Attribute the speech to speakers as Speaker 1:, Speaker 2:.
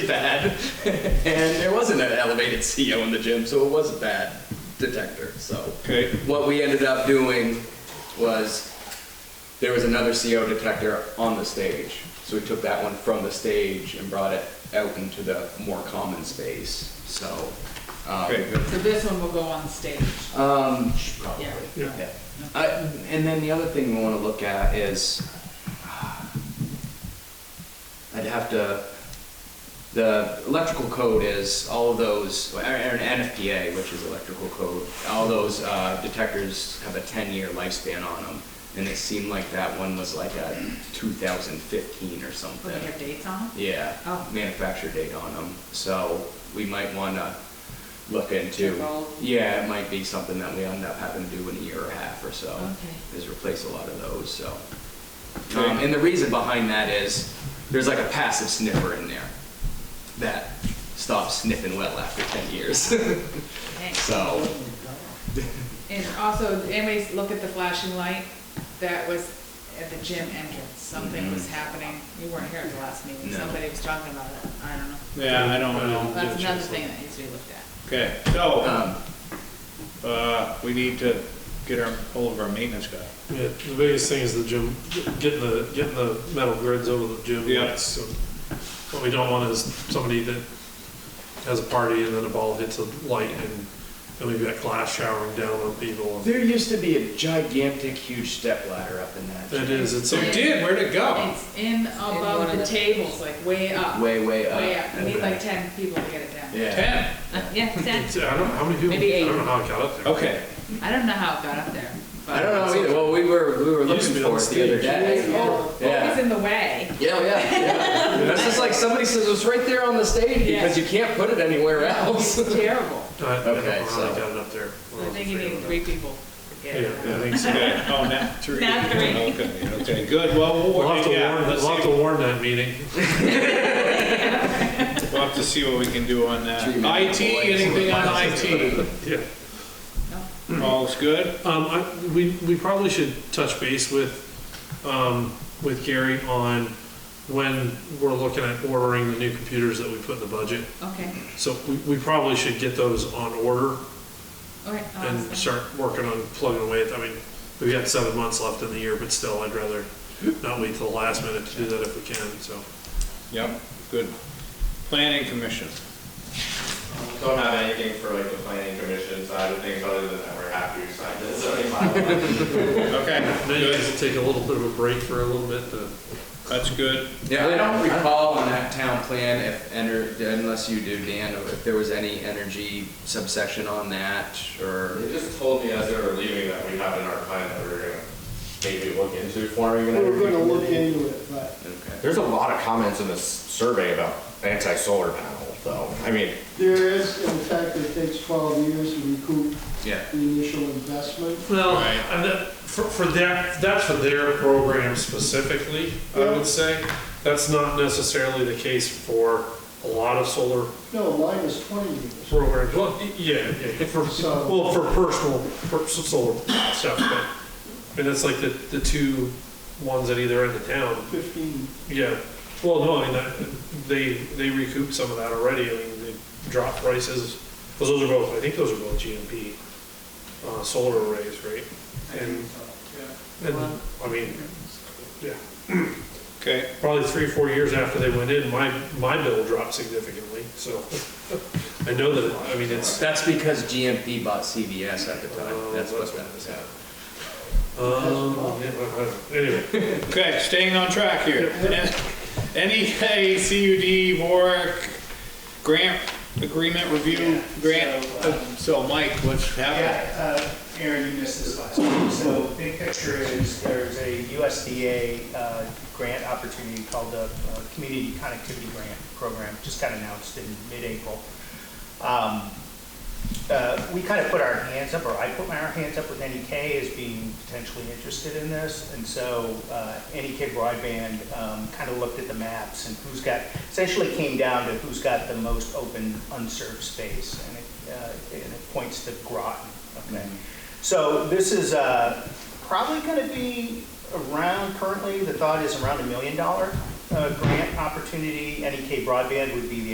Speaker 1: bad, and there wasn't an elevated CO in the gym, so it was a bad detector. So
Speaker 2: Okay.
Speaker 1: what we ended up doing was there was another CO detector on the stage, so we took that one from the stage and brought it out into the more common space. So um,
Speaker 2: Okay, good.
Speaker 3: So this one will go on stage.
Speaker 1: um, probably.
Speaker 3: Yeah.
Speaker 2: Yeah.
Speaker 1: I, and then the other thing we want to look at is, I'd have to, the electrical code is all of those, or an NFPA, which is electrical code, all those uh, detectors have a 10-year lifespan on them. And it seemed like that one was like a 2015 or
Speaker 3: Will it
Speaker 1: something.
Speaker 3: have dates on it?
Speaker 1: Yeah,
Speaker 3: Oh.
Speaker 1: manufacture date on them. So we might want to look into.
Speaker 3: Check all-
Speaker 1: Yeah, it might be something that we end up having to do in a year or a half or so.
Speaker 3: Okay.
Speaker 1: Is replace a lot of those, so.
Speaker 2: Okay.
Speaker 1: Um, and the reason behind that is there's like a passive sniffer in there that stops sniffing well after 10 years.
Speaker 3: Okay.
Speaker 1: so,
Speaker 3: And also, anyways, look at the flashing light that was at the gym entrance. Something was happening. You weren't here at the last meeting.
Speaker 1: Mm-hmm. No.
Speaker 3: Somebody was talking about it. I don't know.
Speaker 2: Yeah, I don't know.
Speaker 3: That's another thing that needs to be looked at.
Speaker 2: Okay, so,
Speaker 1: um,
Speaker 2: uh, we need to get our, hold of our maintenance guy.
Speaker 4: Yeah, the biggest thing is the gym, getting the, getting the metal grids over the gym
Speaker 2: Yeah.
Speaker 4: lights. So What we don't want is somebody that has a party and then a ball hits a light and then we've got glass showering down on people.
Speaker 1: there used to be a gigantic, huge step ladder up in that.
Speaker 4: It is, it's,
Speaker 3: There
Speaker 2: You
Speaker 4: a-
Speaker 2: did, where'd it go?
Speaker 3: It's in
Speaker 5: one
Speaker 3: above
Speaker 5: of
Speaker 3: the
Speaker 5: the-
Speaker 3: tables, like way up.
Speaker 1: Way, way up.
Speaker 3: Way up. We need like ten people to get it down.
Speaker 1: Yeah.
Speaker 2: Ten,
Speaker 3: Yeah, ten.
Speaker 4: it's- I don't, how many people,
Speaker 3: Maybe
Speaker 4: I
Speaker 3: eight.
Speaker 4: don't know how it got up there.
Speaker 2: okay.
Speaker 3: I don't know how it got up there. but-
Speaker 1: I don't know either. Well, we were, we were
Speaker 4: used
Speaker 1: looking
Speaker 4: to be
Speaker 1: for
Speaker 4: on
Speaker 1: it the other
Speaker 4: stage.
Speaker 1: day.
Speaker 3: Oh,
Speaker 1: Yeah.
Speaker 3: Always in the way.
Speaker 1: Yeah, yeah, yeah. That's just like somebody says it's right there on the stage because you can't put it anywhere else.
Speaker 3: It's terrible.
Speaker 4: I I don't
Speaker 1: Okay,
Speaker 4: know how
Speaker 1: so-
Speaker 4: they got it up there.
Speaker 3: I think you need three people to
Speaker 4: Yeah,
Speaker 3: get it.
Speaker 4: yeah, I think so.
Speaker 2: Okay, oh, now three.
Speaker 3: Now three.
Speaker 2: Okay, okay, good, well, we'll,
Speaker 4: We'll have to
Speaker 2: yeah,
Speaker 4: warn,
Speaker 2: let's
Speaker 4: we'll have
Speaker 2: see,
Speaker 4: to warn that meeting.
Speaker 2: we'll have to see what we can do on that.
Speaker 1: Three men,
Speaker 2: IT,
Speaker 1: boys.
Speaker 2: anything on IT?
Speaker 4: Yeah.
Speaker 2: All's good?
Speaker 4: Um, I, we, we probably should touch base with, um, with Gary on when we're looking at ordering the new computers that we put in the budget.
Speaker 3: Okay,
Speaker 4: So we, we probably should get those on order
Speaker 3: all right. I'll ask
Speaker 4: and
Speaker 3: them.
Speaker 4: start working on plugging away. at- I mean, we've got seven months left in the year, but still, I'd rather not wait till the last minute to do that if we can, so.
Speaker 2: Yep, good. Planning commission,
Speaker 6: Don't have anything for like the planning commission side of things, other than that we're happy we signed it, so it's
Speaker 2: okay,
Speaker 4: Then you
Speaker 2: good,
Speaker 4: guys will take a little bit of a break for a little bit to.
Speaker 2: that's good.
Speaker 1: Yeah, I don't recall on that town plan if ener, unless you do, Dan, if there was any energy subsection on that or.
Speaker 6: They just told me as they were leaving that we have in our plan that we're gonna maybe look into forming an
Speaker 7: We're gonna look
Speaker 6: energy committee.
Speaker 7: into it, but
Speaker 1: Okay.
Speaker 6: There's a lot of comments in this survey about anti-solar panel, though. I mean,
Speaker 7: there is, in fact, it takes 12 years to recoup
Speaker 1: Yeah.
Speaker 7: the initial investment.
Speaker 4: Well,
Speaker 2: Right.
Speaker 4: and that, for, for that, that's for their program specifically, I
Speaker 7: Yeah.
Speaker 4: would say. That's not necessarily the case for a lot of solar
Speaker 7: No, mine is 20 years.
Speaker 4: programs. Well, y- yeah, yeah, for,
Speaker 7: So-
Speaker 4: well, for personal, for s- solar stuff, but, and it's like the, the two ones at either end of town,
Speaker 7: 15,
Speaker 4: yeah. Well, no, I mean, that, they, they recouped some of that already, I mean, they dropped prices, 'Cause those are both, I think those are both GMP, uh, solar arrays, right? And and, I mean, yeah,
Speaker 2: Okay,
Speaker 4: probably three, four years after they went in, my, my bill dropped significantly, so. I know that, I mean, it's,
Speaker 1: That's because GMP bought CVS at the time.
Speaker 4: Oh,
Speaker 1: That's what
Speaker 4: that's
Speaker 1: that
Speaker 4: what
Speaker 1: was.
Speaker 4: it um, yeah, I don't know. anyway.
Speaker 2: okay, staying on track here. NEA CUD VORC grant agreement review, grant, so Mike, what's happening?
Speaker 8: Yeah, uh, Aaron, you missed this last one. So big picture is there's a USDA uh, grant opportunity called the uh, Community Connectivity Grant Program, just got announced in mid-April. Um, uh, We kind of put our hands up, or I put my hands up with NEK as being potentially interested in this. And so uh, NEK Broadband um, kind of looked at the maps and who's got, essentially came down to who's got the most open unserved space. And it uh, and it points to Groton, okay? So this is uh, probably going to be around, currently, the thought is around a million dollar uh, grant opportunity. NEK E Broadband would be the